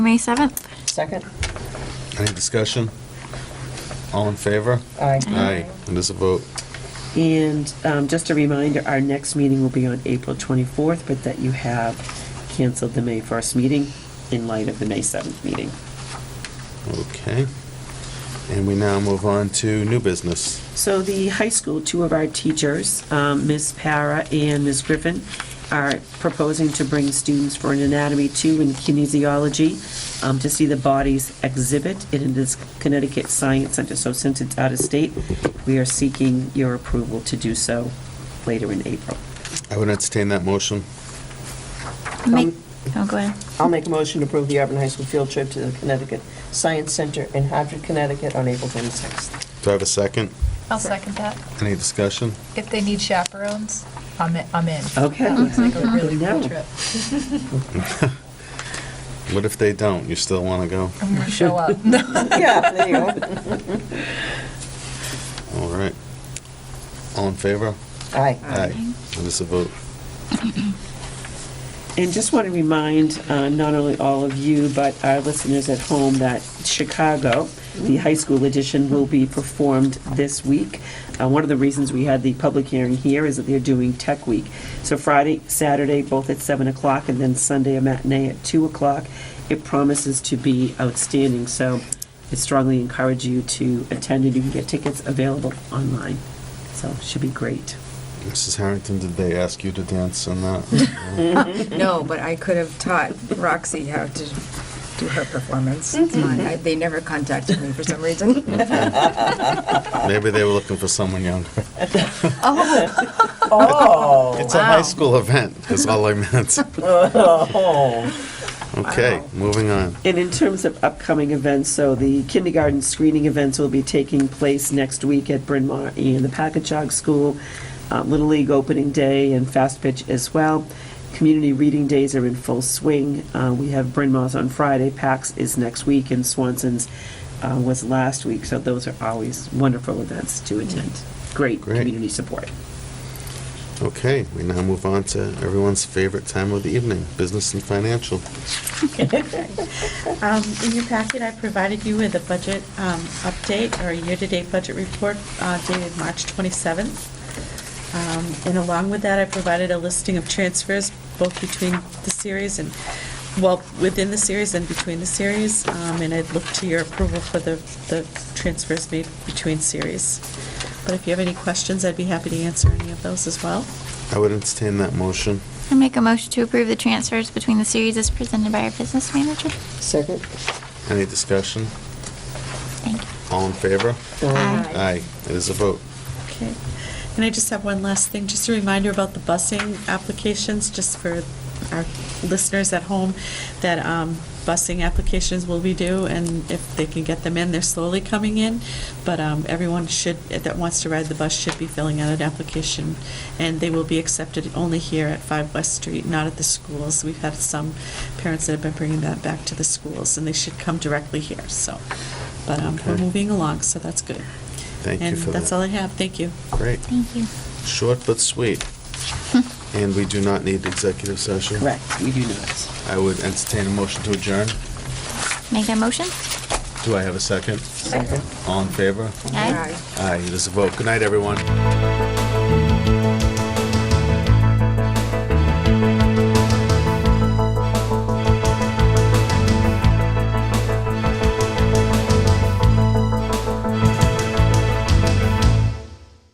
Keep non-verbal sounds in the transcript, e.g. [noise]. May 7th. Second? Any discussion? All in favor? Aye. Aye. It is a vote. And um, just a reminder, our next meeting will be on April 24th, but that you have canceled the May 1st meeting in light of the May 7th meeting. Okay. And we now move on to new business. So the high school, two of our teachers, um, Ms. Para and Ms. Griffin, are proposing to bring students for an anatomy two and kinesiology um, to see the bodies exhibit in this Connecticut Science Center. So since it's out of state, we are seeking your approval to do so later in April. I would entertain that motion. Make, oh, go ahead. I'll make a motion to approve the Auburn High School field trip to the Connecticut Science Center in Hartford, Connecticut on April 26th. Do I have a second? I'll second that. Any discussion? If they need chaperones, I'm in. I'm in. Okay. That looks like a Mm-hmm. really cool No. trip. What if they don't? You still want to go? I'm going to show up. Yeah, there you go. All right. All in favor? Aye. Aye. It is a vote. And just want to remind uh, not only all of you, but our listeners at home, that Chicago, the high school edition, will be performed this week. Uh, One of the reasons we had the public hearing here is that they're doing Tech Week. So Friday, Saturday, both at 7 o'clock, and then Sunday, a matinee at 2 o'clock. It promises to be outstanding, so I strongly encourage you to attend, and you can get tickets available online. So it should be great. Mrs. Harrington, did they ask you to dance in that? No, but I could have taught Roxy how to do her performance. It's mine. I- They never contacted me for some [laughs] reason. Maybe they were looking for someone younger. Oh, It's a high school event, is all I meant. [laughs] oh. Okay, Wow. moving on. And in terms of upcoming events, so the kindergarten screening events will be taking place next week at Bryn Mawr and the Packagug School, uh, Little League Opening Day and Fast Pitch as well. Community reading days are in full swing. Uh, We have Bryn Mawr's on Friday, PAX is next week, and Swanson's uh, was last week. So those are always wonderful events to attend. Great Great. community support. Okay, we now move on to everyone's favorite time of the evening, business and financial. Um, In your packet, I provided you with a budget um, update or a year-to-date budget report uh, dated March 27th. Um, And along with that, I provided a listing of transfers, both between the series and, well, within the series and between the series, Um, and I'd look to your approval for the the transfers made between series. But if you have any questions, I'd be happy to answer any of those as well. I would entertain that motion. I make a motion to approve the transfers between the series as presented by our business manager. Second? Any discussion? Thank you. All in favor? Aye. Aye. It is a vote. Okay. And I just have one last thing, just a reminder about the busing applications, just for our listeners at home, that um, busing applications will be due, and if they can get them in, they're slowly coming in, but um, everyone should, that wants to ride the bus should be filling out an application, and they will be accepted only here at 5 West Street, not at the schools. We've had some parents that have been bringing that back to the schools, and they should come directly here, so. But um, we're Okay. moving along, so that's good. Thank you And for that. that's all I have, thank you. Great. Thank you. Short but sweet. And we do not need executive session. Correct, we do not. I would entertain a motion to adjourn. Make that motion? Do I have a second? Second. All in favor? Aye. Right. Aye. It is a vote. Good night, everyone.